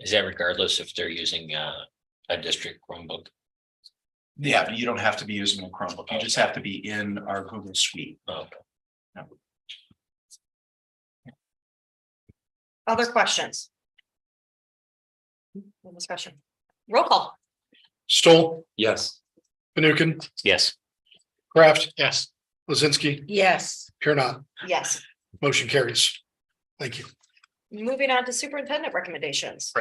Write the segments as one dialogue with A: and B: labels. A: Is that regardless if they're using uh a district Chromebook?
B: Yeah, but you don't have to be using a Chromebook. You just have to be in our Google Suite.
A: Oh,
C: Other questions? No Discussion. Roll call.
D: Stoll,
A: Yes.
D: Fanukin,
A: Yes.
D: Kraft. Yes. Lizinski,
C: Yes.
D: here not,
C: Yes.
D: motion carries. Thank you.
C: Moving on to superintendent recommendations.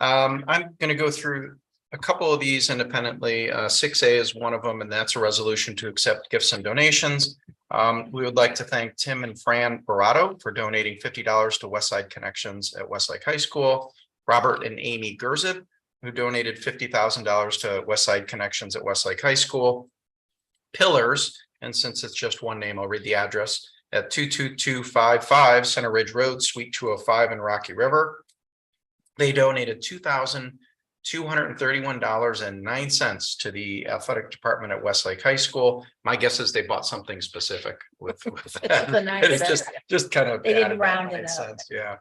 E: Um, I'm gonna go through a couple of these independently. Uh, six A is one of them, and that's a resolution to accept gifts and donations. Um, we would like to thank Tim and Fran Barato for donating fifty dollars to West Side Connections at Westlake High School. Robert and Amy Gerzip, who donated fifty thousand dollars to West Side Connections at Westlake High School. Pillars, and since it's just one name, I'll read the address at two two two five five Center Ridge Road, Suite two oh five in Rocky River they donated two thousand two hundred and thirty-one dollars and nine cents to the athletic department at Westlake High School. My guess is they bought something specific with. with that. It's just, just kind of.
F: They didn't
E: added that
F: round
E: nine
F: it up.
E: cents, Yeah.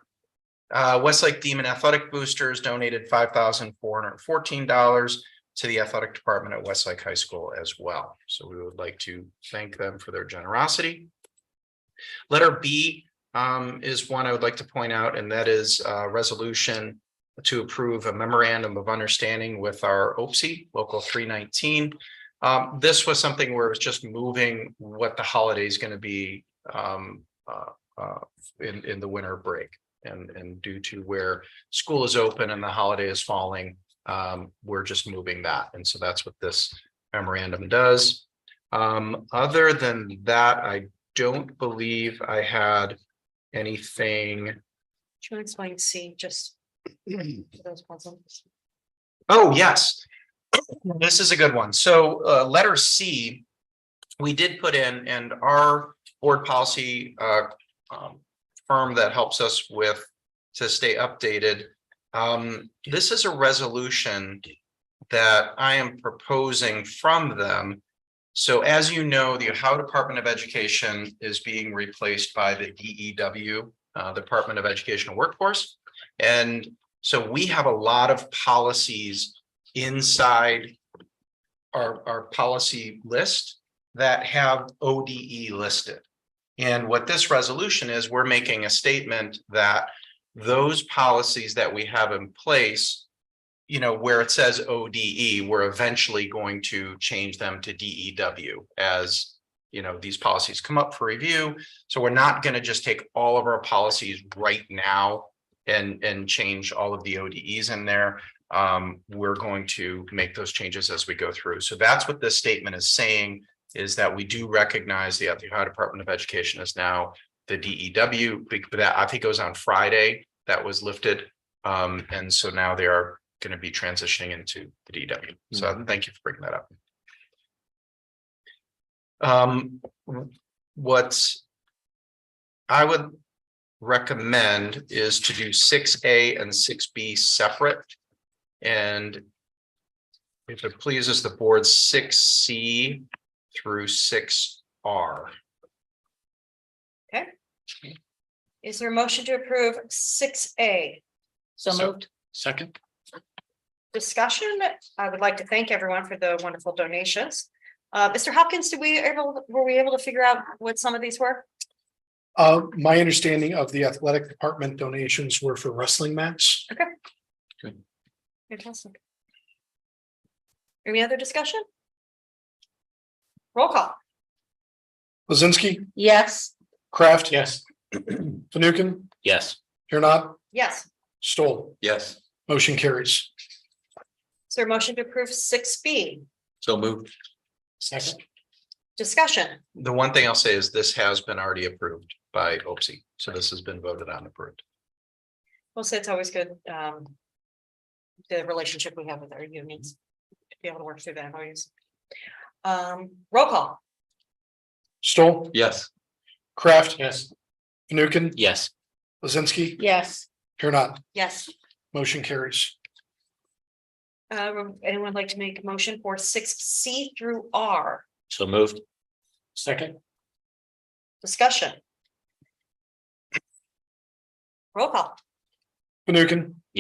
E: Uh, Westlake Demon Athletic Boosters donated five thousand four hundred and fourteen dollars to the athletic department at Westlake High School as well. So we would like to thank them for their generosity. Letter B um, is one I would like to point out, and that is uh, resolution to approve a memorandum of understanding with our OPSI, Local three nineteen. Um, this was something where it was just moving what the holiday is going to be um, uh, uh, in, in the winter break. And, and due to where school is open and the holiday is falling, um, we're just moving that. And so that's what this memorandum does. Um, other than that, I don't believe I had anything
C: Can you explain C just? for those present?
E: Oh, yes. This is a good one. So uh, letter C, we did put in and our board policy uh, um, firm that helps us with to stay updated. Um, This is a resolution that I am proposing from them. So as you know, the Ohio Department of Education is being replaced by the DEW, uh, Department of Educational Workforce. And so we have a lot of policies inside our, our policy list that have ODE listed. And what this resolution is, we're making a statement that those policies that we have in place, you know, where it says ODE, we're eventually going to change them to DEW as, you know, these policies come up for review. So we're not going to just take all of our policies right now and and change all of the ODEs in there. Um, we're going to make those changes as we go through. So that's what this statement is saying is that we do recognize the Ohio Department of Education is now the E DEW, bec- that I think it was on Friday that was lifted. Um, and so now they are going to be transitioning into the DEW. So thank you for bringing that up. Um, what I would recommend is to do six A and six B separate. And if it pleases the board, six C through six R.
C: Is there a motion to approve six A?
F: So moved.
D: Second.
C: Discussion, I would like to thank everyone for the wonderful donations. Uh, Mr. Hopkins, did we able, were we able to figure out what some of these were?
D: Uh, my understanding of the athletic department donations were for wrestling mats.
C: Fantastic. Any other discussion? Roll call.
D: Lizinski,
F: Yes.
D: Kraft. Yes. Fanukin,
A: Yes.
D: here not,
C: Yes.
D: Stoll,
A: Yes.
D: motion carries.
C: Is there a motion to approve six B?
A: So moved.
D: Second.
C: Discussion.
E: The one thing I'll say is this has been already approved by OPSI, so this has been voted on and approved.
C: We'll say it's always good, um. The relationship we have with our unions. to Be able to work through that always. Um, roll call.
D: Stoll,
A: Yes.
D: Kraft. Yes. Fanukin,
A: Yes.
D: Lizinski,
F: Yes.
D: here not,
C: Yes.
D: motion carries.
C: Uh, would anyone like to make a motion for six C through R?
A: So moved.
D: Second.
C: Discussion. Roll call.
D: Fanukin,